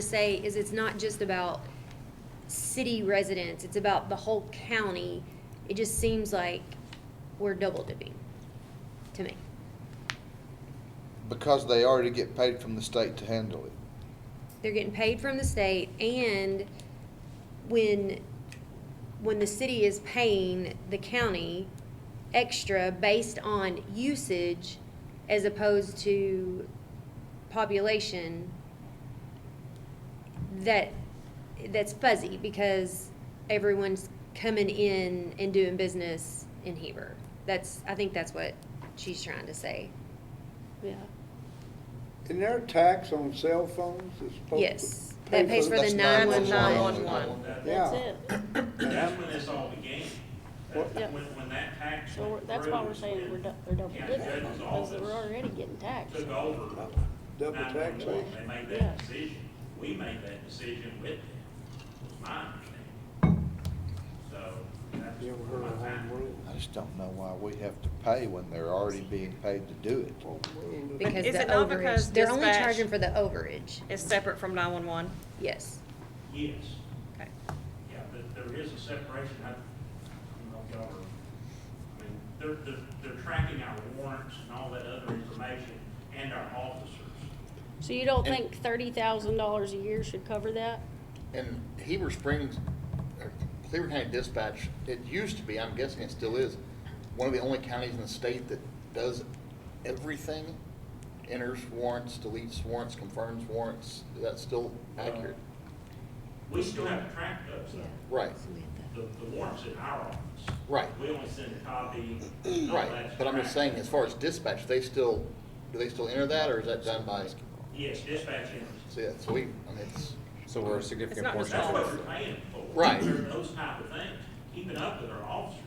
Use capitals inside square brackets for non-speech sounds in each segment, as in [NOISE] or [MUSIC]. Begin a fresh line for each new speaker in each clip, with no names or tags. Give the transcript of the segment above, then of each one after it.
to say is it's not just about city residents, it's about the whole county. It just seems like we're double dipping, to me.
Because they already get paid from the state to handle it.
They're getting paid from the state, and when, when the city is paying the county extra based on usage as opposed to population, that, that's fuzzy, because everyone's coming in and doing business in Heber. That's, I think that's what she's trying to say.
Yeah,
Isn't there a tax on cell phones that's supposed to?
Yes,
pay
that pays for the
That's not what's
nine-one-nine.
on there.
that's
Yeah.
it.
And that's when it's all began.
What-
That- When, when that tax
So we're-
went
that's why we're
through,
saying we're dou- they're double
Yeah,
dipping,
that's
because
all
we're
this.
already getting taxed.
Took over.
Double
911.
taxation.
They made
Yeah.
that decision. We made that decision with them, was my understanding. So that's.
You ever heard of
my
home rule?
I just don't know why we have to pay when they're already being paid to do it.
Home rule.
Because
Is
the
it not because
overage, they're only
dispatch-
charging for the overage,
is separate from 911.
yes.
Yes,
Okay.
yeah, but there is a separation. I, I don't know if y'all are, I mean, they're, they're, they're tracking our warrants and all that other information and our officers.
So you don't think thirty thousand dollars a year should cover that?
And Heber Springs, or Cleveland County Dispatch, it used to be, I'm guessing it still is, one of the only counties in the state that does everything. Enters warrants, deletes warrants, confirms warrants. Is that still accurate?
We still have to track those though.
Right,
The, the warrant's in our office.
Right.
We only send a
[CLEARS THROAT]
copy. all
right.
that's
But I'm just saying,
tracked.
as far as dispatch, they still, do they still enter that or is that done by,
Yes, dispatch enters.
see, that's, we, I mean, it's,
So we're a
It's
significant
not
portion.
just
That's
of
what
it.
we're paying for.
Right.
Those type of things, keeping up with our officers.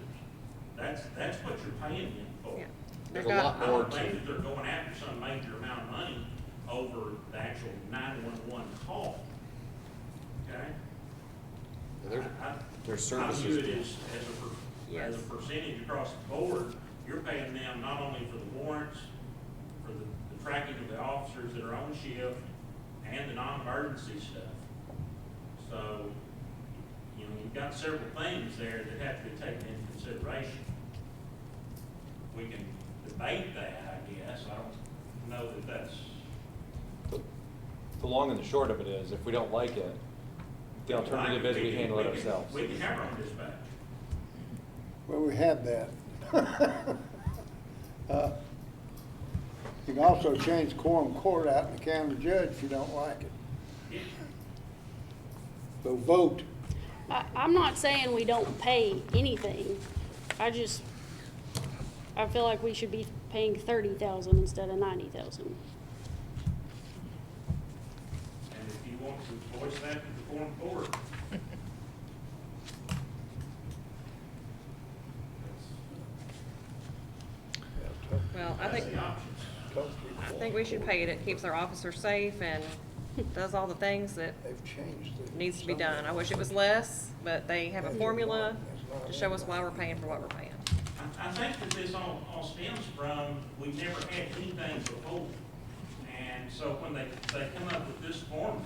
That's, that's what you're paying them for.
Yeah.
there's a lot
I
more
don't think
to.
that they're going after some major amount of money over the actual nine-one-one call. Okay?
There's,
I- I- I
Their
view
services.
it as, as a, per- as a percentage across the board, you're paying them not only for the warrants, for the, the tracking of the officers that are on shift, and the non-emergency stuff. So, you know, you've got several things there that have to be taken into consideration. We can debate that, I guess, I don't know that that's,
The long and the short of it is, if we don't like it, the alternative is we handle it
can-
ourselves.
We can have our own dispatch.
Well, we have that. [LAUGHS] Uh, You can also change quorum court out in the county judge if you don't like it. So vote.
I, I'm not saying we don't pay anything, I just, I feel like we should be paying thirty thousand instead of ninety thousand.
And if you want to voice that to the foreign board.
Well, I
That's
think,
the option.
I think we should pay it. It keeps our officers
[LAUGHS]
safe and does all the things that
They've changed it.
needs to be done. I wish it was less, but they have a formula to show us why we're paying for what we're paying.
I, I think that this all, all stems from, we never had anything before. And so when they, they come up with this formula,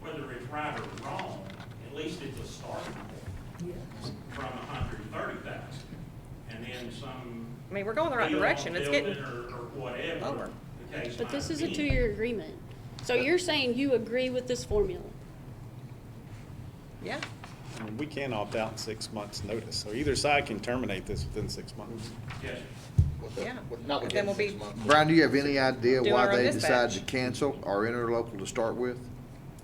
whether it's right or wrong, at least it's a starting point. From a hundred and thirty thousand, and then some.
I mean, we're going the right
deal on
direction. It's getting,
building Or, or whatever,
lower.
the case
But this
might
is a
be.
two-year agreement, so you're saying you agree with this formula?
yeah.
I mean, we can opt out in six months' notice, so either side can terminate this within six months.
Yes,
with the-
Yeah.
with- not
But
within
then we'll be-
six months.
Brian, do you have any idea
Do
why
our own
they decided to
dispatch.
cancel our interlocal to start with?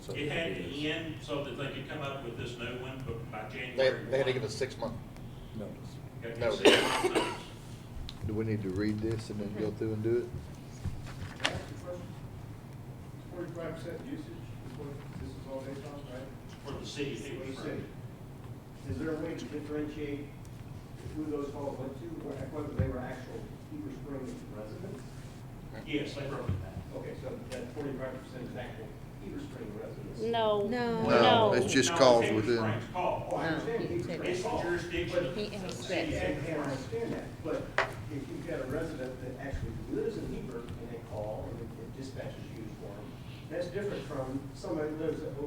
So
it had to end so that they could come up with this new one, but by
They,
January.
they had to
1.
give us six months.
Notice.
Okay,
No.
six months notice.
Do we need to read this and then go through and do it?
Forty-five percent usage is what this is all based on, right?
For the city, it
For
was
the
free.
city. Is there a way to differentiate who those calls went to, or whether they were actual Heber Springs residents?
Yes, they wrote it down.
Okay, so that forty-five percent is actual Heber Springs residents.
No.
No.
No, it's just
No,
calls
Heber
within.
Springs call.
Oh, I understand. Heber Springs
It's the
call.
jurisdiction of the city.
And, and I understand that, but if you've got a resident that actually lives in Heber and they call, and it dispatches you for them, That's different from somebody who lives at